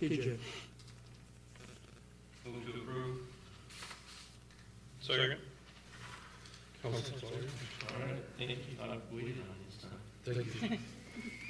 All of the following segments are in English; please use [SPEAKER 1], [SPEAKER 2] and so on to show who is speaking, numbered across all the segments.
[SPEAKER 1] TJ.
[SPEAKER 2] Move to approve. Second. Councilman Sawyer.
[SPEAKER 3] All right, thank you, I've waited on this time. Thank you.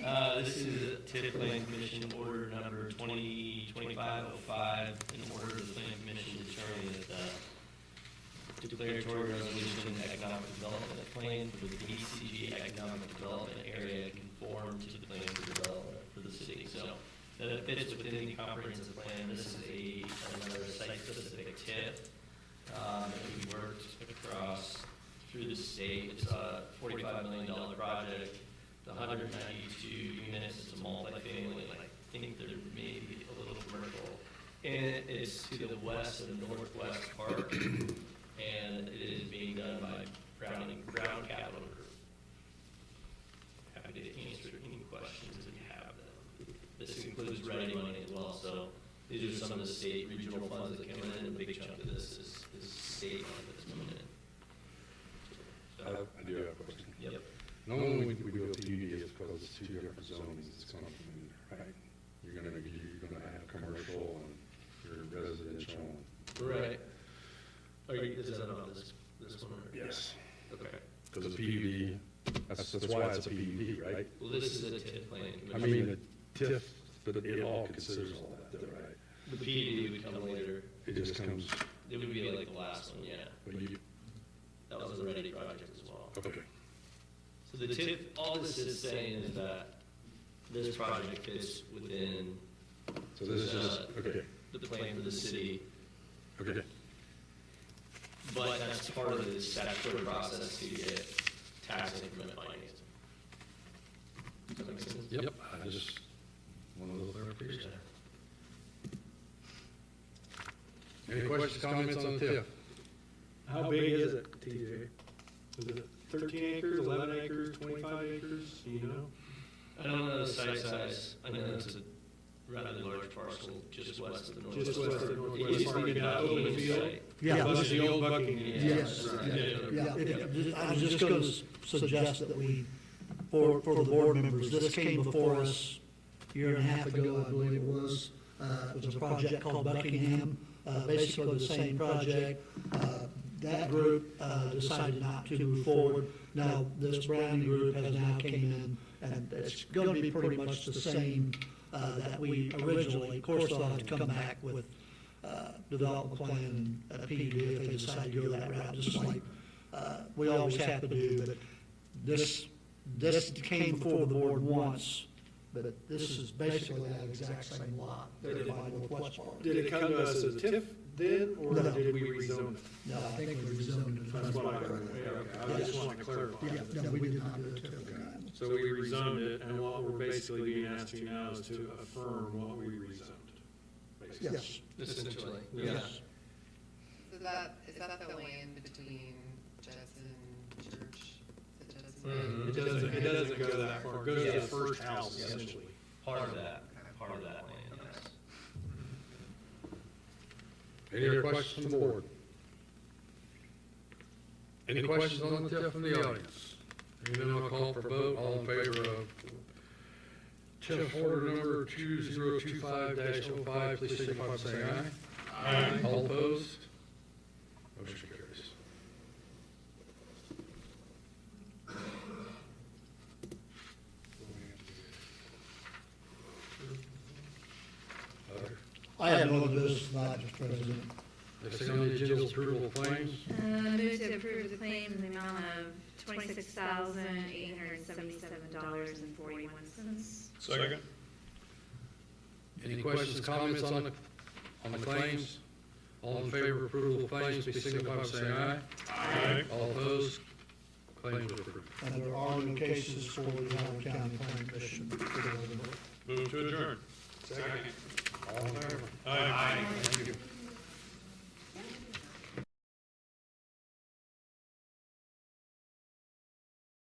[SPEAKER 3] Uh, this is a TIF Plan Commission order number twenty twenty-five oh five, in order of the Plan Commission to determine that the declaratory resolution and economic development plan for the DCG economic development area conform to the plan for development for the city. So that it fits within the comprehensive plan, this is a, another site-specific TIF, um, that we worked across through the state. It's a forty-five million dollar project, the hundred ninety-two units, it's a multifamily, like, I think there may be a little commercial. And it's to the west of Northwest Park, and it is being done by Brown, Brown Capital Group. Happy to answer any questions if you have them. This includes ready money as well, so these are some of the state regional funds that come in, and a big chunk of this is, is state money that's coming in.
[SPEAKER 2] I
[SPEAKER 3] So,
[SPEAKER 2] I do have a question.
[SPEAKER 3] Yep.
[SPEAKER 2] Normally, we we go PUD is because it's two different zones, it's complicated, right? You're gonna, you're gonna have commercial and your residential.
[SPEAKER 3] Right. Are you, is that on this, this one? or-
[SPEAKER 2] Yes.
[SPEAKER 3] Okay.
[SPEAKER 2] Because the PUD, that's, that's why it's a PUD, right?
[SPEAKER 3] Well, this is a TIF plan.
[SPEAKER 2] I
[SPEAKER 3] commission.
[SPEAKER 2] mean, the TIF, but it all considers all that, though, right?
[SPEAKER 3] The PDD would come later.
[SPEAKER 2] It just comes,
[SPEAKER 3] It would be like the last one, yeah.
[SPEAKER 2] but you,
[SPEAKER 3] That was a ready project as well.
[SPEAKER 2] okay.
[SPEAKER 3] So the TIF, all this is saying is that this project fits within
[SPEAKER 2] So this is just, okay,
[SPEAKER 3] the plan for the city,
[SPEAKER 2] okay.
[SPEAKER 3] but that's part of the statutory process to get tax increment financing. Does that make sense?
[SPEAKER 2] Yep. I just, one of those clarifications. Any questions, comments on the TIF?
[SPEAKER 1] How big is it, TJ? Is it thirteen acres, eleven acres, twenty-five acres, Do you know?
[SPEAKER 3] I don't know the site size, I know it's a rather large parcel just west of the north.
[SPEAKER 1] Just west of
[SPEAKER 3] It
[SPEAKER 1] Northwest
[SPEAKER 3] used to
[SPEAKER 1] Park,
[SPEAKER 3] be
[SPEAKER 1] in
[SPEAKER 3] an
[SPEAKER 1] that
[SPEAKER 3] open
[SPEAKER 1] open field?
[SPEAKER 3] site.
[SPEAKER 4] Yeah,
[SPEAKER 1] Buck-
[SPEAKER 4] but-
[SPEAKER 1] The old
[SPEAKER 3] Yeah,
[SPEAKER 1] Buckingham.
[SPEAKER 4] Yes.
[SPEAKER 3] right.
[SPEAKER 4] yeah, it- I was just going to suggest that we, for, for the board members, this came before us a year and a half ago, I believe it was. Uh, It was a project called Buckingham, uh, basically the same project. Uh, That group uh, decided not to move forward. Now, this Browning group has now came in, and it's going to be pretty much the same uh, that we originally, of course, they'll have to come back with uh, development plan and a PUD if they decide to go that route, just like uh, we always have to do, but this, this came before the board once, but this is basically that exact same lot that we bought with West Park.
[SPEAKER 1] Did it come to us as a TIF then, or
[SPEAKER 4] No.
[SPEAKER 1] did we rezone it?
[SPEAKER 4] No, I think we rezoned it.
[SPEAKER 1] That's what I heard. Okay, I was just wanted to clarify.
[SPEAKER 4] Yeah, no, we did not do it. till then.
[SPEAKER 1] So we rezoned it, and what we're basically being asked to now is to affirm what we rezoned. basically.
[SPEAKER 4] Yes,
[SPEAKER 3] Essentially, yeah.
[SPEAKER 4] yes.
[SPEAKER 5] Is that, is that the land between Judson Church? Is it Judson?
[SPEAKER 1] Mm-hmm. It doesn't, it doesn't go that far, it goes to
[SPEAKER 3] Yeah.
[SPEAKER 1] the first house essentially.
[SPEAKER 3] Part of that, part of that land, yes.
[SPEAKER 2] Any other questions from the board? Any questions on the TIF from the audience? Hearing none, I'll call for a vote. All in favor of TIF order number 2025-05, please signify by saying aye. Aye. All opposed? Motion carries. Other.
[SPEAKER 4] I have no other business tonight, Mr. President.
[SPEAKER 2] Next thing on the agenda is approval of claims.
[SPEAKER 6] Uh, move to approve the claim in the amount of twenty-six thousand, eight hundred and seventy-seven dollars and forty-one cents.
[SPEAKER 2] Second. Any questions, comments on the, on the claims? All in favor of approval of claims, please signify by saying aye. Aye. All opposed? Claims are approved.
[SPEAKER 4] And there are no cases for the Howard County Plan Commission.
[SPEAKER 2] All in favor? Aye. Thank you.